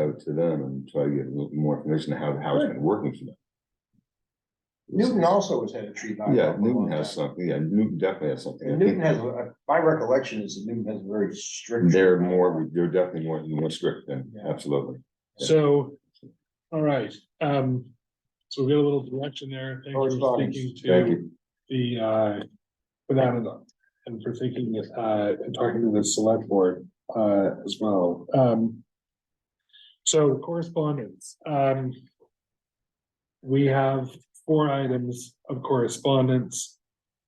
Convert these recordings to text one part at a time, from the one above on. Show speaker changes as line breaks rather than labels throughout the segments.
out to them and try to get a little more information on how the house been working for them.
Newton also has had a tree bylaw.
Yeah,
for a long
Newton
time.
has something, yeah, Newton definitely has something. I
And
think
Newton has, a- my recollection is that Newton has a very strict.
They're more, they're definitely more, more strict than, absolutely.
So, all right, um, so we got a little direction there. Thank you for
Correspondence.
thinking
Thank
to
you.
the, uh, without it, and for thinking, uh, and talking to the select board, uh, as well. Um, so correspondence, um, we have four items of correspondence.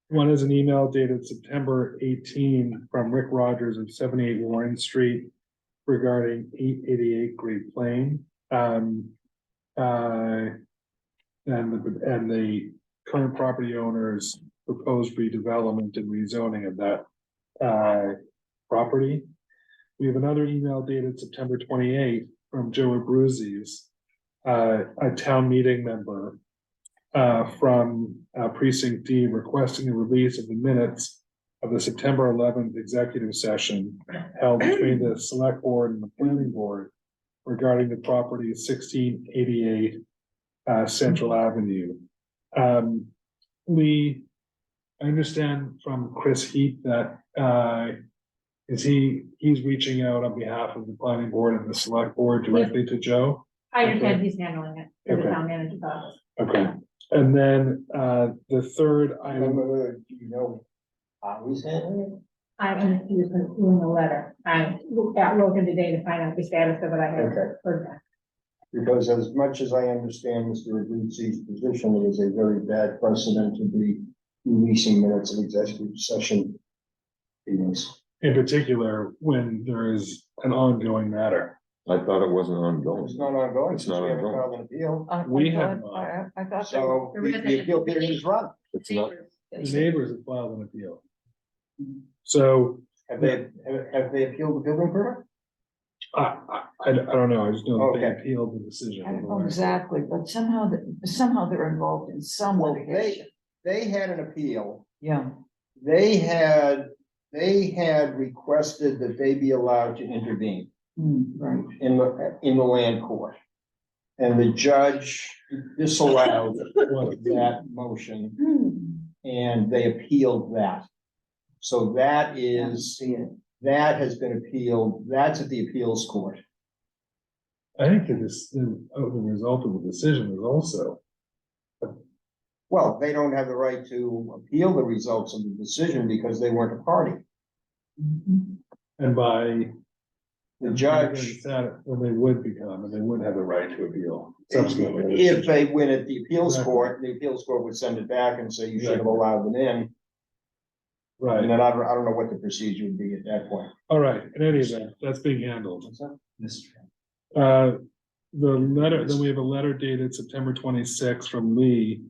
One is an email dated September eighteen from Rick Rogers of seventy-eight Warren Street regarding eight eighty-eight Great Plain. Um, uh, and the, and the current property owner's proposed redevelopment and rezoning of that, uh, property. We have another email dated September twenty-eighth from Joe Abruzzi's, uh, a town meeting member, uh, from uh, precinct D requesting the release of the minutes of the September eleventh executive session held between the select board and the planning board regarding the property sixteen eighty-eight uh, Central Avenue. Um, Lee, I understand from Chris Heath that, uh, is he, he's reaching out on behalf of the planning board and the select board directly to Joe?
I understand he's handling it, for the
Okay.
town manager's office.
Okay, and then, uh, the third
I don't
item,
know whether you know, how he's handling
I'm confused with doing the letter. I looked at Logan today to find out the status of it. I haven't
Okay.
heard that.
it, because as much as I understand Mr. Abruzzi's position, it is a very bad precedent to be releasing minutes of executive session meetings.
in particular, when there is an ongoing matter.
I thought it wasn't
It's
ongoing.
not ongoing,
It's
since
not
we haven't
ongoing.
filed an appeal,
I- I
We have
thought-
not.
I I- I thought. they were-
so the the appeal period is run.
It's not,
The Neighbors have filed an appeal. So,
Have they, have- have they appealed the building permit?
I, I, I don't know, I just know that they
Okay.
appealed the decision.
I don't know Oh, exactly, but somehow, th- somehow they're involved in some
Well, they-
litigation.
They had an appeal.
Yeah,
they had, they had requested that they be allowed to intervene
Mm, right.
in the, in the land court. And the judge disallowed that motion
Hmm,
and they appealed that. So that
yeah,
is,
See it.
that has been appealed, that's at the appeals court.
I think that this, the, oh, the result of the decision is also,
Well, they don't have the right to appeal the results of the decision because they weren't a party.
Mhm.
and by.
The judge,
Well, they would become, and they would have the right to appeal subsequently.
If they win at the appeals
Exactly.
court, the appeals court would send it back and say you should have allowed them in. And
Right,
then I don't, I don't know what the procedure would be at that point.
all right, in any event, that's being handled. Uh, the letter, then we have a letter dated September twenty-sixth from Lee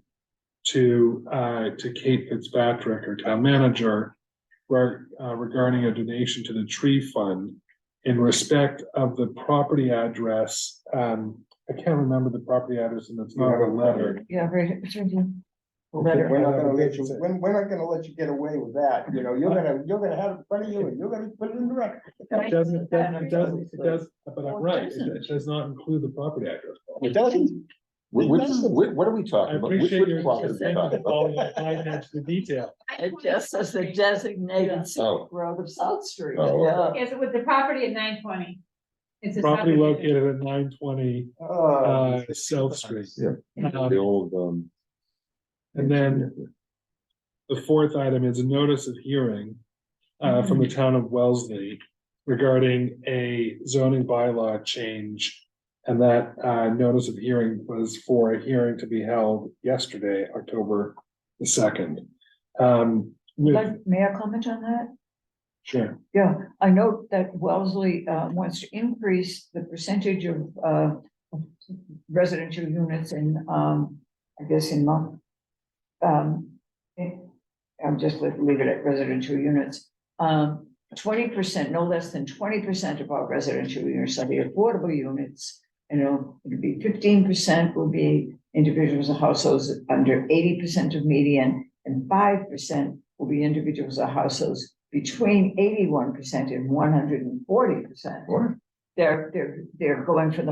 to, uh, to Kate Fitzpatrick, our town manager, reg- uh, regarding a donation to the tree fund in respect of the property address, um, I can't remember the property address and it's not a letter.
Yeah, very. it's right here.
We're
Letter,
not gonna let you, we're, we're not gonna let you get away with that, you know, you're gonna, you're gonna have it in front of you and you're gonna put it in the record.
It doesn't, it doesn't, it doesn't, it does, but I'm
Well, it
right, it
doesn't.
it does not include the property address.
It doesn't.
Wh- which- wh- what are we
I
talking about? Which-
appreciate
which
your.
property are we talking about?
following the fine edge to detail.
It just says the designated scenic
Oh,
road of South Street.
Oh.
Yeah.
Yes, it was the property at nine twenty. It's a
Property
subdivision.
located at nine twenty,
Uh,
uh, South Street.
Yeah. the
Um,
old, um.
And then- The fourth item is a notice of hearing, uh, from the town of Wellesley regarding a zoning bylaw change. And that, uh, notice of hearing was for a hearing to be held yesterday, October the second. Um, with-
But May I comment on that?
sure,
Yeah, I note that Wellesley uh wants to increase the percentage of uh residential units in um, I guess in Mount. Um, eh, I'm just leave leave it at residential units. Um, twenty percent, no less than twenty percent of our residential units are the affordable units. You know, it'd be fifteen percent will be individuals or households under eighty percent of median. And five percent will be individuals or households between eighty-one percent and one hundred and forty percent.
What?
They're, they're, they're going for the